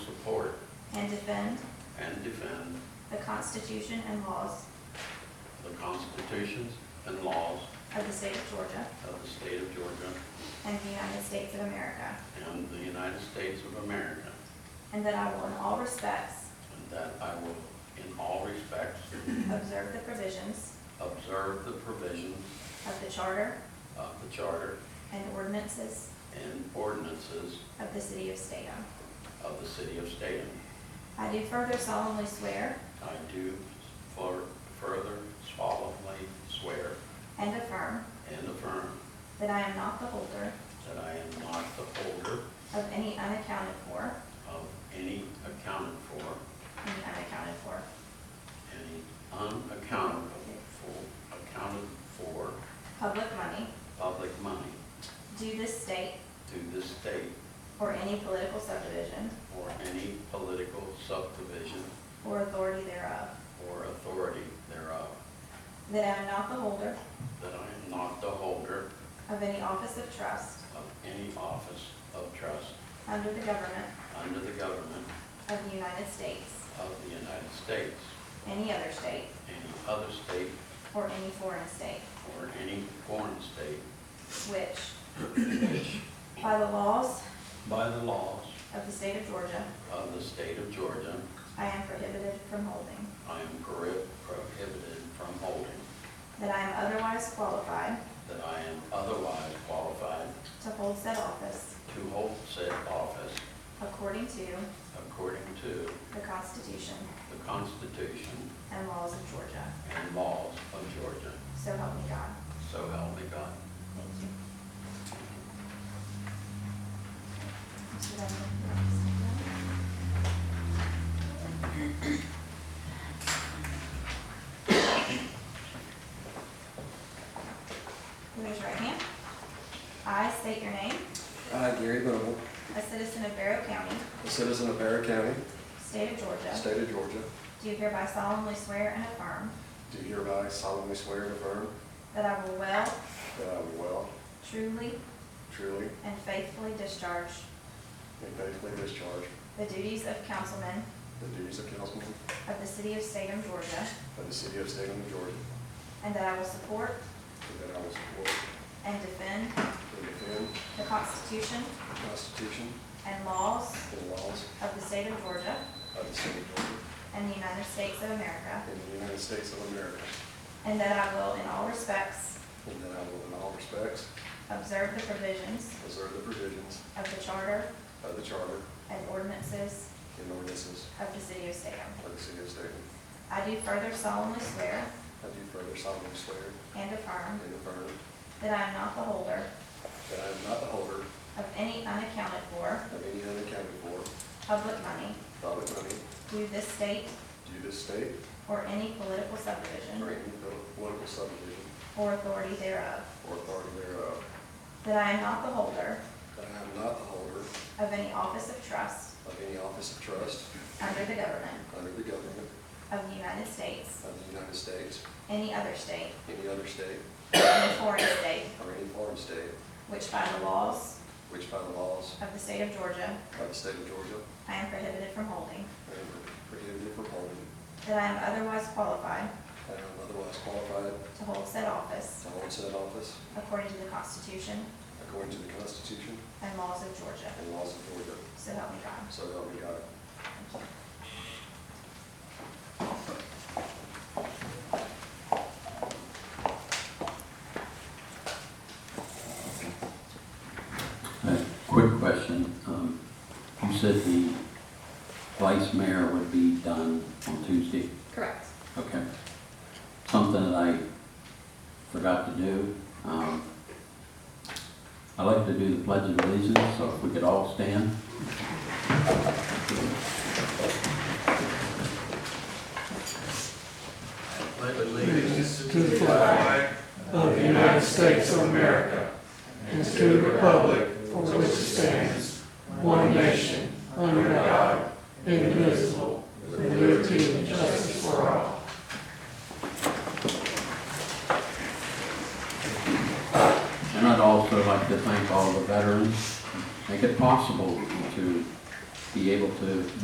defend and defend the Constitution and laws the constitutions and laws of the state of Georgia of the state of Georgia and the United States of America, and the United States of America, and that I will in all respects and that I will, in all respects, observe the provisions observe the provisions of the charter of the charter and ordinances and ordinances of the city of Statham. of the city of Statham. I do further solemnly swear I do fur- further solemnly swear and affirm and affirm that I am not the holder that I am not the holder of any unaccounted for, of any accounted for, any unaccounted for, any unaccountable for, accounted for public money public money due this state to this state or any political subdivision or any political subdivision or authority thereof, or authority thereof, that I am not the holder that I am not the holder of any office of trust of any office of trust under the government under the government of the United States, of the United States, any other state, any other state, or any foreign state, or any foreign state, which, which, by the laws by the laws of the state of Georgia, of the state of Georgia, I am prohibited from holding, I am prohib- prohibited from holding, that I am otherwise qualified that I am otherwise qualified to hold said office to hold said office according to according to the Constitution the Constitution and laws of Georgia. and laws of Georgia. So help me God. So help me God. Thank you. Raise your right hand. I state your name, I, Uh, Gary Noble, a citizen of Barrow County, a citizen of Barrow County, state of Georgia, state of Georgia, do hereby solemnly swear and affirm do hereby solemnly swear and affirm that I will well, that I will well, truly, truly, and faithfully discharge and faithfully discharge the duties of councilman the duties of councilman of the city of Salem, Georgia, of the city of Statham, Georgia, and that I will support and that I will support and defend and defend the Constitution the Constitution and laws and laws of the state of Georgia of the state of Georgia and the United States of America, and the United States of America, and that I will in all respects and that I will in all respects observe the provisions observe the provisions of the charter of the charter and ordinances and ordinances of the city of Salem. of the city of Statham. I do further solemnly swear I do further solemnly swear and affirm and affirm that I am not the holder that I am not the holder of any unaccounted for of any unaccounted for public money public money due this state due this state or any political or subdivision any political subdivision or authority thereof, or authority thereof, that I am not the holder that I am not the holder of of any office of trust any office of trust under the government under the government of the United States, of the United States, any other state, any other state, any foreign state, or any foreign state, which by the laws which by the laws of the state of Georgia of the state of Georgia I am prohibited from holding, I am prohibited from holding, that I am otherwise qualified and I am otherwise qualified to hold said office to hold said office according to the Constitution according to the Constitution and laws of Georgia. and laws of Georgia, So help me God. so help me God. A Uh, Quick question. Um, You said the vice mayor would be done on Tuesday? Correct. Okay. Something that I forgot to do. um, I like to do the pledge of allegiance, so if we could all stand. Pledge allegiance to the flag of the United States of America and to the republic for which it stands, one nation, under God, indivisible, with liberty and justice for all. And I'd also like to thank all the veterans. Make it possible to be able to